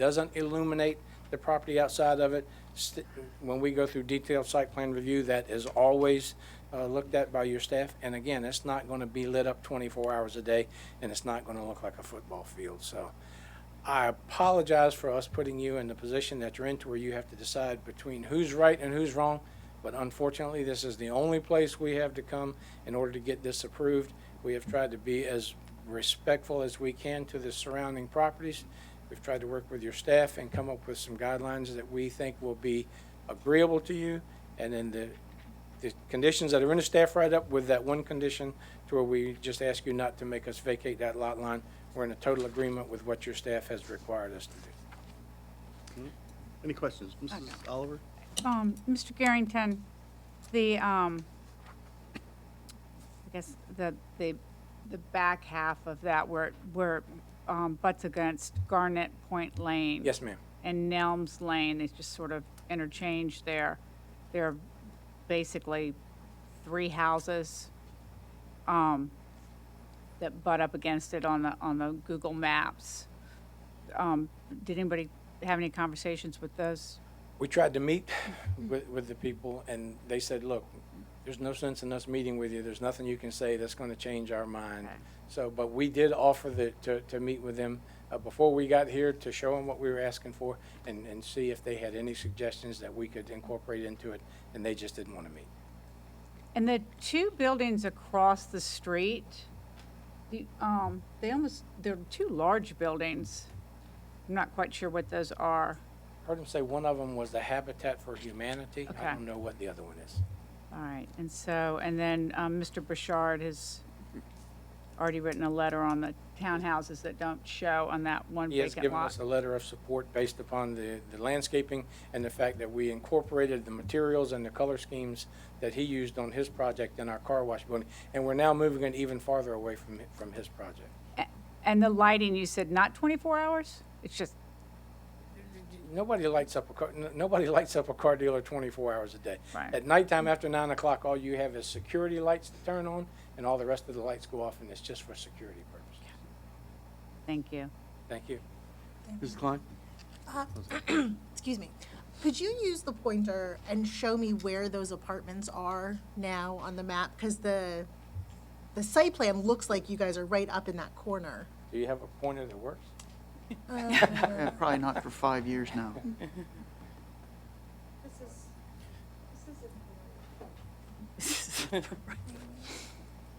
doesn't illuminate the property outside of it. St- When we go through detailed site plan review, that is always uh, looked at by your staff. And again, it's not going to be lit up 24 hours a day, and it's not going to look like a football field. So I apologize for us putting you in the position that you're in to where you have to decide between who's right and who's wrong. But unfortunately, this is the only place we have to come in order to get this approved. We have tried to be as respectful as we can to the surrounding properties. We've tried to work with your staff and come up with some guidelines that we think will be agreeable to you. And then the, the conditions that are in the staff write-up with that one condition to where we just ask you not to make us vacate that lot line. We're in a total agreement with what your staff has required us to do. Any questions? Mrs. Okay. Oliver? Um, Mr. Garrington, the, um, I guess, the, the, the back half of that where, where, um, butts against Garnet Point Lane. Yes, ma'am. And Nelms Lane, they just sort of interchange there. There are basically three houses, um, that butt up against it on the, on the Google Maps. Um, did anybody have any conversations with those? We tried to meet with, with the people, and they said, look, there's no sense in us meeting with you. There's nothing you can say that's gonna change our mind. Okay. So, but we did offer the, to, to meet with them, uh, before we got here to show them what we were asking for and, and see if they had any suggestions that we could incorporate into it, and they just didn't wanna meet. And the two buildings across the street, the, um, they almost, they're two large buildings. I'm not quite sure what those are. Heard him say one of them was the Habitat for Humanity. Okay. I don't know what the other one is. All right, and so, and then, um, Mr. Burchard has already written a letter on the townhouses that don't show on that one He has vacant given lot. us a letter of support based upon the, the landscaping and the fact that we incorporated the materials and the color schemes that he used on his project in our car wash building. And we're now moving it even farther away from, hi- from his project. And the lighting, you said not twenty-four hours? It's just, Nobody lights up a car, n- nobody lights up a car dealer twenty-four hours a day. Right. At nighttime after nine o'clock, all you have is security lights to turn on and all the rest of the lights go off and it's just for security purposes. thank you. Thank you. Mrs. Klein? excuse me, could you use the pointer and show me where those apartments are now on the map? Because the, the site plan looks like you guys are right up in that corner. Do you have a pointer that works? Yeah, Eh, Probably not for five years now.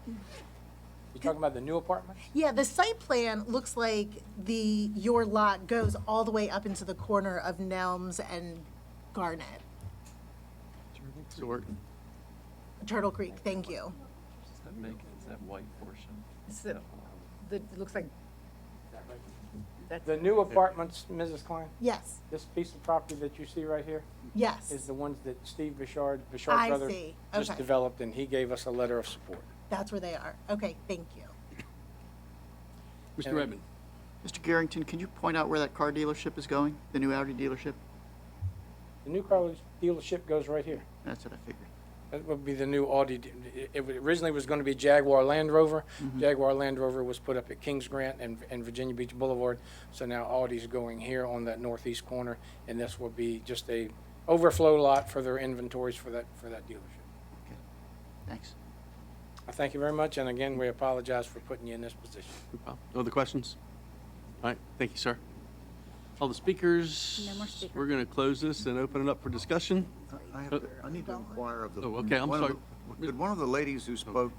You talking about the new apartment? Yeah, the site plan looks like the, your lot goes all the way up into the corner of Nelms and Garnet, So we're- Turtle Creek, thank you. Does that make, is that white portion? the, looks like. The new apartments, Mrs. Klein? Yes, This piece of property that you see right here is yes, the ones that Steve Bouchard, Bouchard I brother, see. just Okay. developed, and he gave us a letter of support. that's where they are. Okay, thank you. Mr. Redmond? Mr. Garrington, can you point out where that car dealership is going? The new Audi dealership? The new car dealership goes right here. That's what I figured. That would be the new Audi. d- It it originally was going to be Jaguar Land Rover. Jaguar Land Rover was put up at Kings Grant and, and Virginia Beach Boulevard. So now Audi's going here on that northeast corner, and this will be just a overflow lot for their inventories for that, for that dealership. Thanks. I thank you very much, and again, we apologize for putting you in this position. No other questions? All right, thank you, sir. All the speakers? No more speaker. We're going to close this and open it up for discussion. I have, Uh, I need to inquire of the. Oh, okay, I'm one of sorry. Oh. the- Could one of the ladies who spoke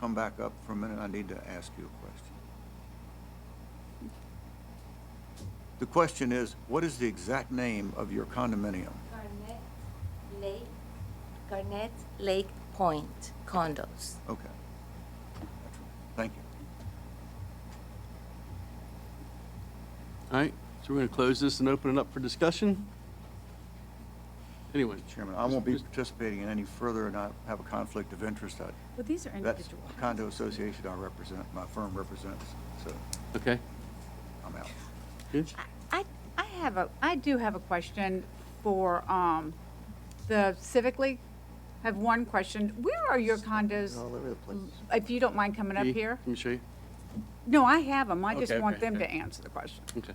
come back up for a minute? I need to ask you a question. The question is, what is the exact name of your condominium? Garnet Lake, Garnet Lake Point condos. Okay. Thank you. All right, so we're going to close this and open it up for discussion. Anyone? Chairman, I won't be Mr. participating in any further, and I have a conflict of interest. I- Well, these are That's individual. a condo association I represent, my firm represents, so Okay, I'm out. good. I, I have a, I do have a question for, um, the Civic League. I have one question. Where are your condos? All over the place. If you don't mind coming up Dee, here? Let me show you. No, I have them. I just Okay, want okay, them to okay. answer the question. Okay.